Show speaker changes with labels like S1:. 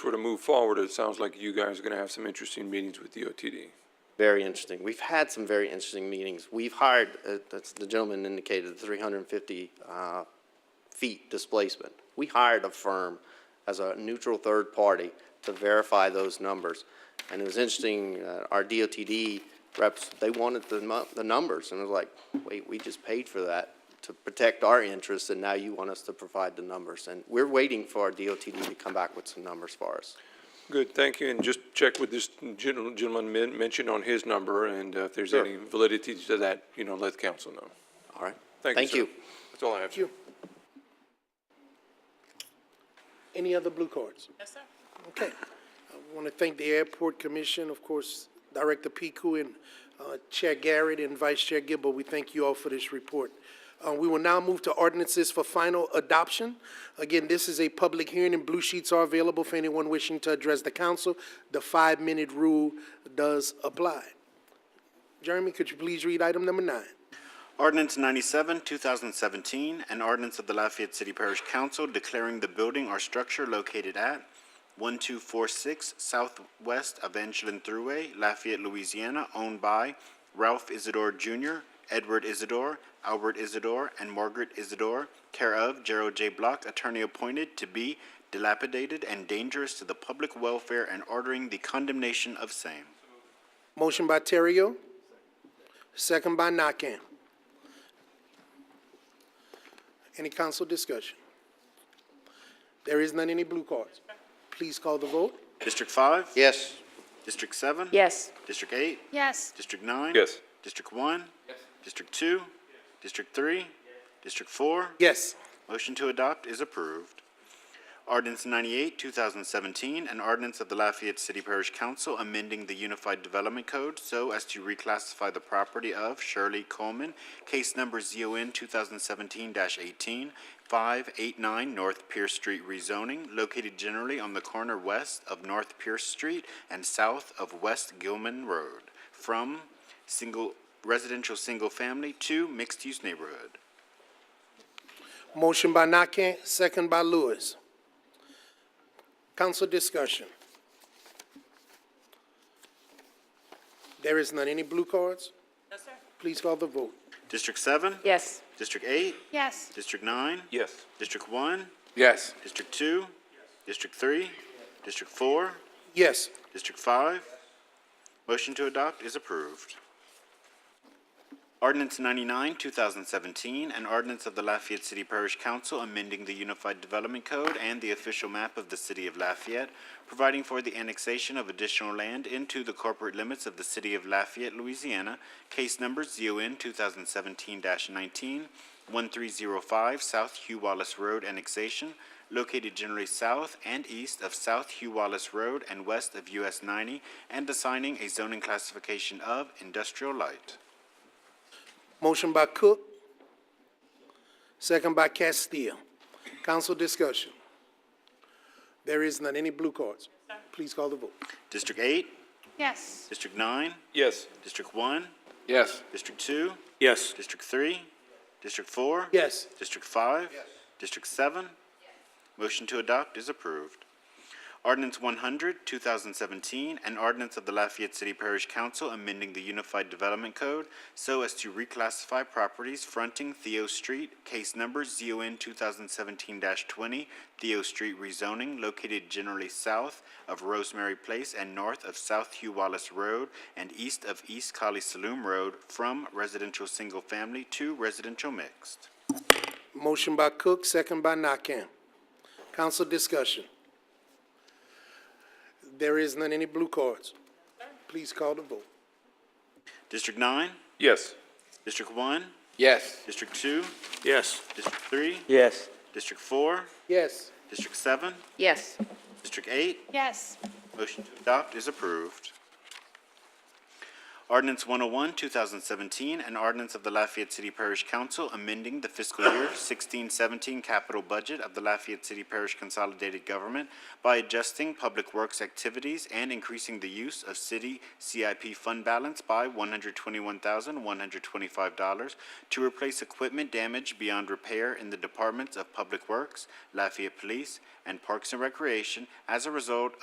S1: sort of move forward, it sounds like you guys are gonna have some interesting meetings with DOTD.
S2: Very interesting. We've had some very interesting meetings. We've hired, uh, that's, the gentleman indicated, three hundred and fifty, uh, feet displacement. We hired a firm as a neutral third party to verify those numbers. And it was interesting, uh, our DOTD reps, they wanted the mu- the numbers, and it was like, wait, we just paid for that to protect our interests, and now you want us to provide the numbers. And we're waiting for our DOTD to come back with some numbers for us.
S1: Good, thank you, and just check with this gen- gentleman men- mentioned on his number, and uh, if there's
S2: Sure.
S1: any validity to that, you know, let council know.
S2: All right?
S1: Thank you, sir. That's all I have, sir.
S3: Any other blue cards? Yes, sir. Okay. I want to thank the Airport Commission, of course, Director Piku and uh, Chair Garrett and Vice Chair Gibbo. We thank you all for this report. Uh, We will now move to ordinances for final adoption. Again, this is a public hearing, and blue sheets are available for anyone wishing to address the council. The five-minute rule does apply. Jeremy, could you please read item number nine?
S4: Ordinance 97, 2017, an ordinance of the Lafayette City Parish Council declaring the building or structure located at 1246 Southwest Evangeline Thruway, Lafayette, Louisiana, owned by Ralph Isidore Jr., Edward Isidore, Albert Isidore, and Margaret Isidore, care of Gerald J. Block, attorney appointed to be dilapidated and dangerous to the public welfare and ordering the condemnation of same.
S3: Motion by Terrio. Second by Nakam. Any council discussion? There is none, any blue cards? Please call the vote.
S4: District 5?
S2: Yes.
S4: District 7?
S5: Yes.
S4: District 8?
S5: Yes.
S4: District nine?
S1: Yes.
S4: District one? Yes. District two? District three? District four?
S3: Yes.
S4: Motion to adopt is approved. Ordinance ninety-eight, two thousand seventeen, an ordinance of the Lafayette City Parish Council amending the Unified Development Code so as to reclassify the property of Shirley Coleman, case number ZON two thousand seventeen 18 eighteen, five eight nine North Pierce Street rezoning, located generally on the corner west of North Pierce Street and south of West Gilman Road, from single, residential single-family to mixed-use neighborhood.
S3: Motion by Nakam, second by Lewis. Council discussion. There is none, any blue cards?
S5: Yes, sir.
S3: Please call the vote.
S4: District seven?
S5: Yes.
S4: District eight?
S5: Yes.
S4: District nine?
S1: Yes.
S4: District one?
S1: Yes.
S4: District two? District three? District four?
S3: Yes.
S4: District five? Motion to adopt is approved. Ordinance ninety-nine, two thousand seventeen, an ordinance of the Lafayette City Parish Council amending the Unified Development Code and the official map of the city of Lafayette, providing for the annexation of additional land into the corporate limits of the city of Lafayette, Louisiana, case number ZON two thousand seventeen 19 1305 South Hugh Wallace Road annexation, located generally south and east of South Hugh Wallace Road and west of US ninety, and assigning a zoning classification of industrial light.
S3: Motion by Cook, second by Castile. Council discussion. There is none. Any blue cards? Please call the vote.
S4: District eight,
S5: Yes.
S4: District nine,
S1: Yes.
S4: District one,
S1: Yes.
S4: District two,
S1: Yes.
S4: District three, District four.
S3: Yes.
S4: District five? District seven? Motion to adopt is approved. Ordinance 100, 2017, an ordinance of the Lafayette City Parish Council amending the Unified Development Code so as to reclassify properties fronting Theo Street, case number ZON 2017-20, Theo Street rezoning located generally south of Rosemary Place and north of South Hugh Wallace Road and east of East Collie Saloon Road from residential single-family to residential mixed.
S3: Motion by Cook, second by Nakam. Council discussion. There is none. Any blue cards? Please call the vote.
S4: District nine?
S1: Yes.
S4: District one?
S1: Yes.
S4: District two?
S1: Yes.
S4: District three?
S6: yes,
S4: District four?
S3: Yes.
S4: District seven?
S5: Yes.
S4: District eight?
S5: Yes.
S4: Motion to adopt is approved. Ordinance 101, 2017, an ordinance of the Lafayette City Parish Council amending the fiscal year 1617 capital budget of the Lafayette City Parish Consolidated Government by adjusting public works activities and increasing the use of city CIP fund balance by $121,125 to replace equipment damaged beyond repair in the departments of Public Works, Lafayette Police, and Parks and Recreation as a result